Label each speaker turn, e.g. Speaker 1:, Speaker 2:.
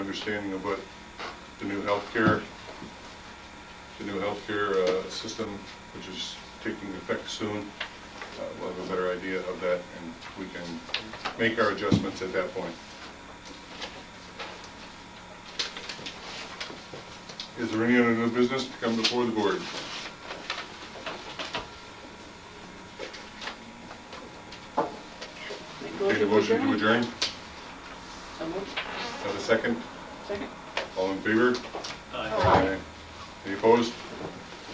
Speaker 1: understanding of what the new healthcare, the new healthcare uh, system, which is taking effect soon, uh, we'll have a better idea of that, and we can make our adjustments at that point. Is there any other new business to come before the board?
Speaker 2: Make
Speaker 1: Take a motion to adjourn,
Speaker 2: So moved.
Speaker 1: have a second,
Speaker 2: Second.
Speaker 1: all in favor?
Speaker 3: Aye.
Speaker 1: Any opposed?